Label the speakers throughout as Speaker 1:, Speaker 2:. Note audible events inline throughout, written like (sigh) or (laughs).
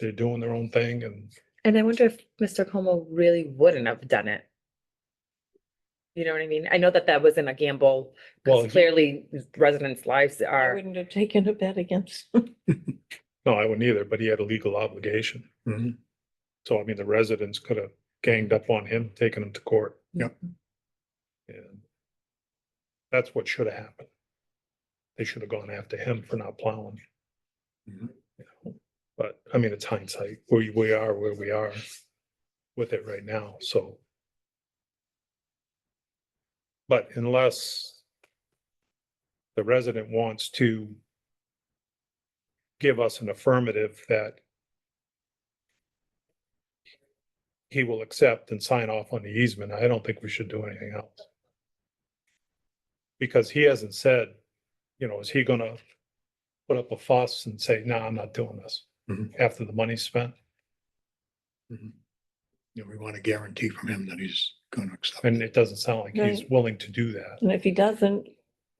Speaker 1: they're doing their own thing and
Speaker 2: And I wonder if Mr. Como really wouldn't have done it. You know what I mean? I know that that wasn't a gamble,
Speaker 1: Well, he-
Speaker 2: because clearly residents' lives
Speaker 3: I
Speaker 2: are,
Speaker 3: wouldn't have taken a bet against.
Speaker 1: no, I wouldn't either, but he had a legal obligation.
Speaker 4: Mhm.
Speaker 1: So I mean, the residents could have ganged up on him, taken him to court.
Speaker 4: Yep.
Speaker 1: And that's what should have happened. They should have gone after him for not plowing.
Speaker 4: Mhm.
Speaker 1: you know. But I mean, it's hindsight. We, we are where we are with it right now, so. But unless the resident wants to give us an affirmative that he will accept and sign off on the easement, I don't think we should do anything else. Because he hasn't said, you know, is he gonna put up a fuss and say, no, I'm not doing this
Speaker 4: Mhm.
Speaker 1: after the money's spent?
Speaker 4: You know, we want a guarantee from him that he's going to accept.
Speaker 1: And
Speaker 4: it.
Speaker 1: it doesn't sound like he's
Speaker 3: Right.
Speaker 1: willing to do that.
Speaker 3: (laughs) And if he doesn't,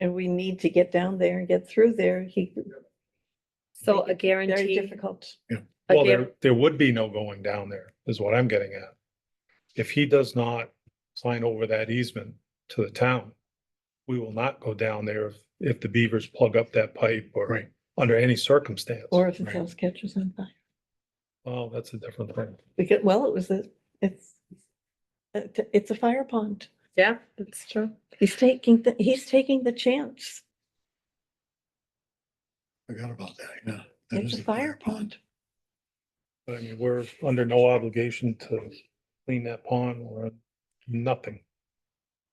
Speaker 3: and we need to get down there and get through there, he,
Speaker 2: so a
Speaker 3: very
Speaker 2: guarantee.
Speaker 3: difficult.
Speaker 2: a
Speaker 1: Well,
Speaker 2: guar-
Speaker 1: there, there would be no going down there, is what I'm getting at. If he does not sign over that easement to the town, we will not go down there if, if the beavers plug up that pipe or
Speaker 4: Right.
Speaker 1: under any circumstance.
Speaker 3: Or if his
Speaker 4: Right.
Speaker 3: house catches on fire.
Speaker 1: Well, that's a different thing.
Speaker 3: Because, well, it was a, it's, it- it's a fire pond.
Speaker 2: Yeah, that's true.
Speaker 3: He's taking, the he's taking the chance.
Speaker 4: Forgot about that, yeah. That
Speaker 3: It's
Speaker 4: is
Speaker 3: a
Speaker 4: the
Speaker 3: fire pond.
Speaker 1: But I mean, we're under no obligation to clean that pond or nothing.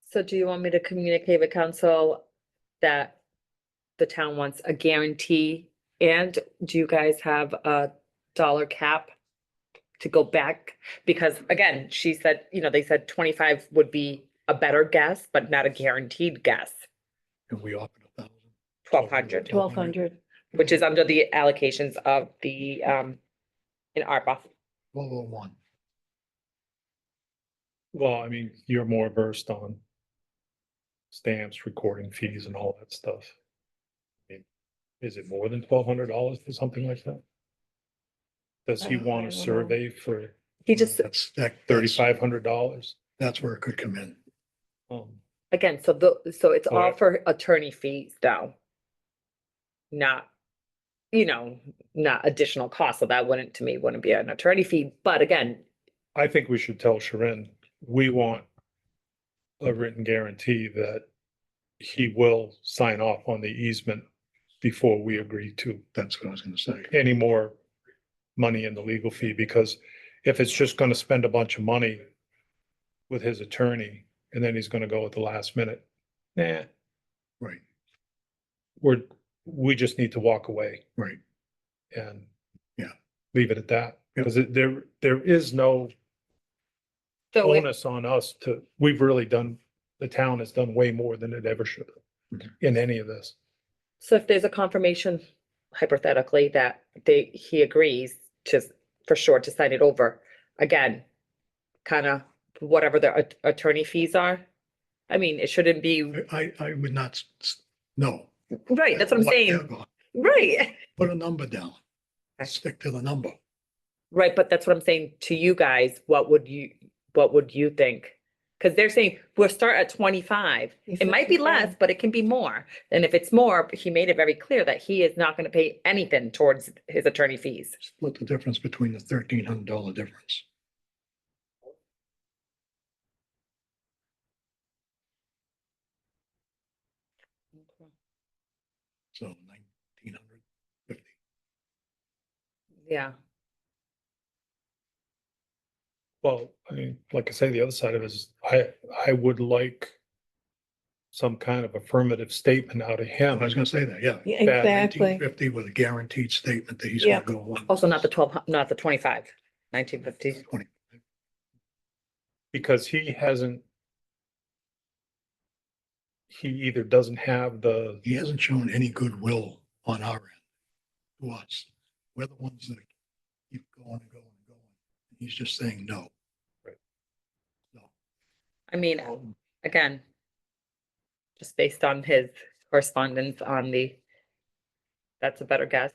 Speaker 2: So do you want me to communicate with council that the town wants a guarantee? And do you guys have a dollar cap to go back? Because again, she said, you know, they said twenty-five would be a better guess, but not a guaranteed guess,
Speaker 4: And we offered a thousand.
Speaker 2: twelve hundred,
Speaker 3: Twelve hundred.
Speaker 2: which is under the allocations of the, um, in ARPA.
Speaker 4: Twelve oh one.
Speaker 1: Well, I mean, you're more versed on stamps, recording fees and all that stuff. I mean, Is it more than twelve hundred dollars for something like that? Does he
Speaker 3: Uh, I
Speaker 1: want a
Speaker 3: don't know.
Speaker 1: survey for
Speaker 2: He just,
Speaker 4: That's, that, thirty-five,
Speaker 1: thirty-five hundred dollars? Um,
Speaker 4: that's where it could come in.
Speaker 2: again, so the, so it's all
Speaker 1: Correct.
Speaker 2: for attorney fees though. Not, you know, not additional costs, so that wouldn't, to me, wouldn't be an attorney fee, but again,
Speaker 1: I think we should tell Sharon, we want a written guarantee that he will sign off on the easement before we agree to
Speaker 4: That's what I was gonna say.
Speaker 1: any more money in the legal fee, because if it's just gonna spend a bunch of money with his attorney, and then he's gonna go at the last minute, nah,
Speaker 4: Right,
Speaker 1: we're, we just need to walk away
Speaker 4: right.
Speaker 1: and
Speaker 4: Yeah.
Speaker 1: leave it at that,
Speaker 4: Yeah.
Speaker 1: because it- there, there is no
Speaker 2: so if-
Speaker 1: onus on us to, we've really done, the town has done way more than it ever should have
Speaker 4: Mhm.
Speaker 1: in any of this.
Speaker 2: So if there's a confirmation hypothetically that they, he agrees to, for sure to sign it over, again, kind of whatever the at- attorney fees are. I mean, it shouldn't be,
Speaker 4: I, I I would not, s- s- no.
Speaker 2: right, that's what I'm saying,
Speaker 4: Whatever.
Speaker 2: right,
Speaker 4: Put a number down.
Speaker 2: Okay.
Speaker 4: Stick to the number.
Speaker 2: right, but that's what I'm saying to you guys, what would you, what would you think? Because they're saying, we'll start at twenty-five, it might be less, but it can be more, and if it's more, he made it very clear that he is not gonna pay anything towards his attorney fees.
Speaker 4: Split the difference between the thirteen hundred dollar difference. So nineteen hundred fifty.
Speaker 2: Yeah.
Speaker 1: Well, I mean, like I say, the other side of it is, I, I would like some kind of affirmative statement out of him.
Speaker 4: I was gonna say that, yeah.
Speaker 3: Yeah,
Speaker 1: that
Speaker 3: Exactly.
Speaker 4: 1950 with a guaranteed statement that he's gonna
Speaker 3: Yeah.
Speaker 4: go along.
Speaker 2: Also not the twelve, hu- not the twenty-five, nineteen fifty.
Speaker 4: Twenty.
Speaker 1: because he hasn't. He either doesn't have the,
Speaker 4: He hasn't shown any goodwill on our end to us. We're the ones that keep going and going and going. He's just saying no.
Speaker 2: I mean, again, just based on his correspondence on the, that's a better guess.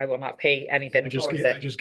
Speaker 2: I will not pay anything
Speaker 4: I just,
Speaker 2: towards
Speaker 4: Oh, I
Speaker 2: it.
Speaker 4: just